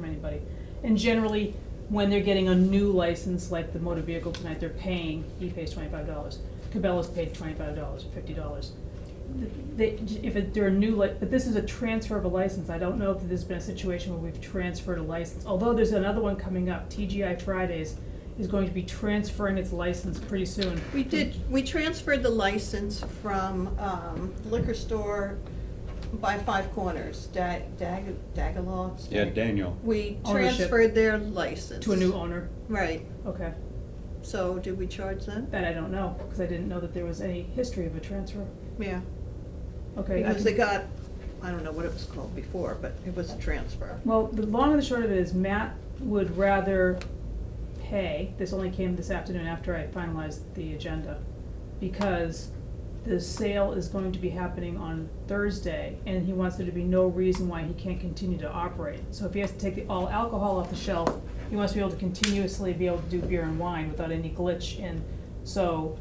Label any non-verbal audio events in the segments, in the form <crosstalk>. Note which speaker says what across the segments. Speaker 1: right? And generally, when they're getting a new license, like the motor vehicle tonight, they're paying, he pays twenty-five dollars, Cabela's paid twenty-five dollars or fifty dollars. They, if it- they're a new, li- but this is a transfer of a license, I don't know if there's been a situation where we've transferred a license, although there's another one coming up, TGI Fridays is going to be transferring its license pretty soon.
Speaker 2: We did, we transferred the license from um, liquor store by Five Corners, Da- Dag, Dagalog.
Speaker 3: Yeah, Daniel.
Speaker 2: We
Speaker 1: Ownership.
Speaker 2: transferred their license.
Speaker 1: To a new owner,
Speaker 2: Right,
Speaker 1: okay,
Speaker 2: so did we charge them?
Speaker 1: that I don't know, cause I didn't know that there was any history of a transfer,
Speaker 2: Yeah,
Speaker 1: okay. I
Speaker 2: because they
Speaker 1: can-
Speaker 2: got, I don't know what it was called before, but it was a transfer.
Speaker 1: Well, the long and the short of it is Matt would rather pay, this only came this afternoon after I finalized the agenda, because the sale is going to be happening on Thursday, and he wants there to be no reason why he can't continue to operate. So if he has to take the all alcohol off the shelf, he wants to be able to continuously be able to do beer and wine without any glitch, and so,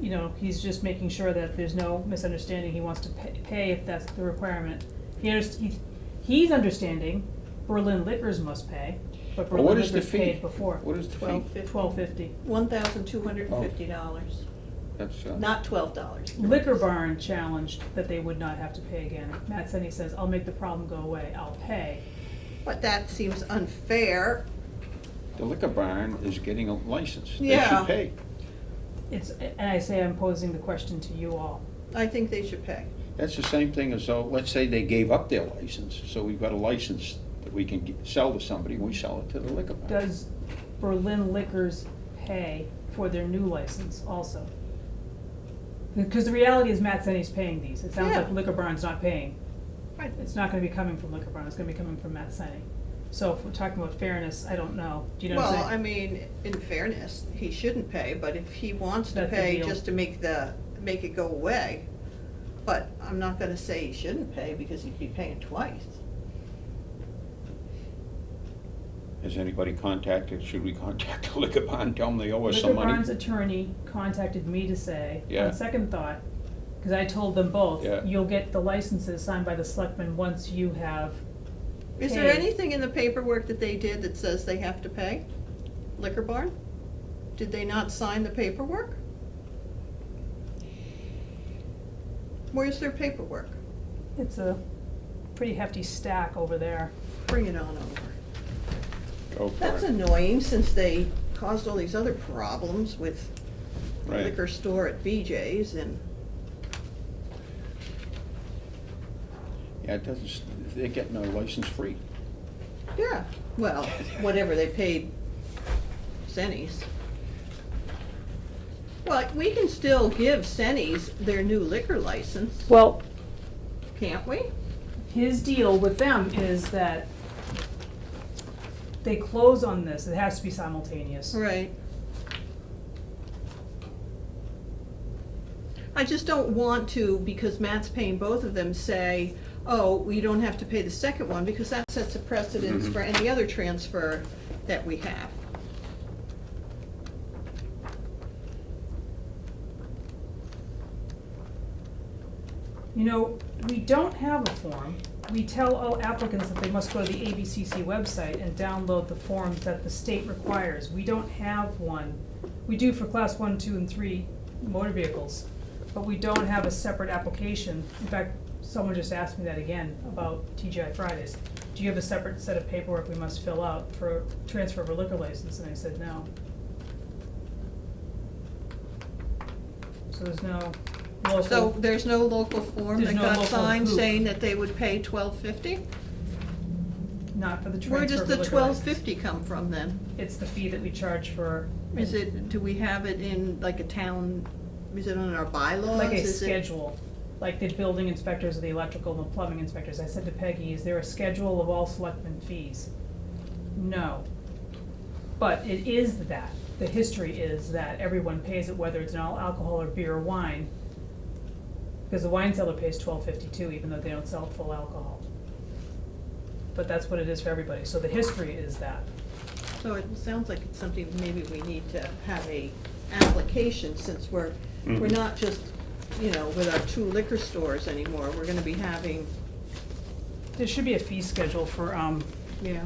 Speaker 1: you know, he's just making sure that there's no misunderstanding, he wants to pa- pay if that's the requirement. He underst- he, he's understanding Berlin Liquors must pay, but
Speaker 3: Well,
Speaker 1: Berlin
Speaker 3: what is the
Speaker 1: Liquors
Speaker 3: fee?
Speaker 1: paid before.
Speaker 3: What is the fee?
Speaker 2: Twelve fifty.
Speaker 1: Twelve fifty.
Speaker 2: One thousand two hundred and fifty dollars,
Speaker 3: That's, uh,
Speaker 2: not twelve dollars.
Speaker 1: Liquor Barn challenged that they would not have to pay again. Matt Senni says, I'll make the problem go away, I'll pay.
Speaker 2: But that seems unfair.
Speaker 3: the liquor barn is getting a license. They
Speaker 2: Yeah.
Speaker 3: should pay.
Speaker 1: It's, and I say I'm posing the question to you all.
Speaker 2: I think they should pay.
Speaker 3: That's the same thing as though, let's say they gave up their license, so we've got a license that we can get- sell to somebody, and we sell it to the liquor barn.
Speaker 1: Does Berlin Liquors pay for their new license also? Because the reality is Matt Senni's paying these. It sounds like
Speaker 2: Yeah.
Speaker 1: Liquor Barn's not paying. It's not gonna be coming from Liquor Barn, it's gonna be coming from Matt Senni. So if we're talking about fairness, I don't know. Do you know what I'm
Speaker 2: Well,
Speaker 1: saying?
Speaker 2: I mean, in fairness, he shouldn't pay, but if he wants to
Speaker 1: That's a
Speaker 2: pay
Speaker 1: deal.
Speaker 2: just to make the, make it go away, but I'm not gonna say he shouldn't pay because he'd be paying twice.
Speaker 3: Has anybody contacted, should we contact the <laughs> liquor barn, tell them they owe us some
Speaker 1: Liquor Barn's
Speaker 3: money?
Speaker 1: attorney contacted me to say,
Speaker 3: Yeah.
Speaker 1: on second thought, because I told them both,
Speaker 3: Yeah.
Speaker 1: you'll get the licenses signed by the selectmen once you have,
Speaker 2: Is there
Speaker 1: Paid.
Speaker 2: anything in the paperwork that they did that says they have to pay? Liquor barn? Did they not sign the paperwork? Where's their paperwork?
Speaker 1: it's a pretty hefty stack over there.
Speaker 2: Bring it on over.
Speaker 3: Go for
Speaker 2: That's
Speaker 3: it.
Speaker 2: annoying since they caused all these other problems with
Speaker 3: Right.
Speaker 2: liquor store at BJ's and,
Speaker 3: Yeah, it doesn't, s- they're getting a license free.
Speaker 2: yeah, well, whatever they paid Sennies. Well, we can still give Sennies their new liquor license,
Speaker 1: Well.
Speaker 2: can't we?
Speaker 1: His deal with them is that they close on this, it has to be simultaneous.
Speaker 2: Right. I just don't want to, because Matt's paying both of them, say, oh, we don't have to pay the second one, because that sets a precedence
Speaker 3: Mhm.
Speaker 2: for any other transfer that we have.
Speaker 1: You know, we don't have a form. We tell all applicants that they must go to the ABCC website and download the forms that the state requires. We don't have one. We do for class one, two, and three motor vehicles, but we don't have a separate application. In fact, someone just asked me that again about TGI Fridays. Do you have a separate set of paperwork we must fill out for transfer of a liquor license? And I said, no. So there's no local.
Speaker 2: So there's no local form
Speaker 1: There's
Speaker 2: that
Speaker 1: no
Speaker 2: got
Speaker 1: local
Speaker 2: signed
Speaker 1: who.
Speaker 2: saying that they would pay twelve fifty?
Speaker 1: Not for the transfer
Speaker 2: Where does
Speaker 1: of
Speaker 2: the
Speaker 1: liquor
Speaker 2: twelve
Speaker 1: license.
Speaker 2: fifty come from then?
Speaker 1: It's the fee that we charge for.
Speaker 2: Is it, do we have it in like a town, is it on our bylaws?
Speaker 1: Like a
Speaker 2: Is it-
Speaker 1: schedule, like the building inspectors, the electrical, and the plumbing inspectors. I said to Peggy, is there a schedule of all selectmen fees? No. But it is that. The history is that everyone pays it, whether it's an all alcohol or beer or wine. Because the wine seller pays twelve fifty-two, even though they don't sell full alcohol. But that's what it is for everybody. So the history is that.
Speaker 2: So it sounds like it's something maybe we need to have a application since we're, we're
Speaker 3: Mhm.
Speaker 2: not just, you know, with our two liquor stores anymore, we're gonna be having,
Speaker 1: There should be a fee schedule for, um,
Speaker 2: yeah.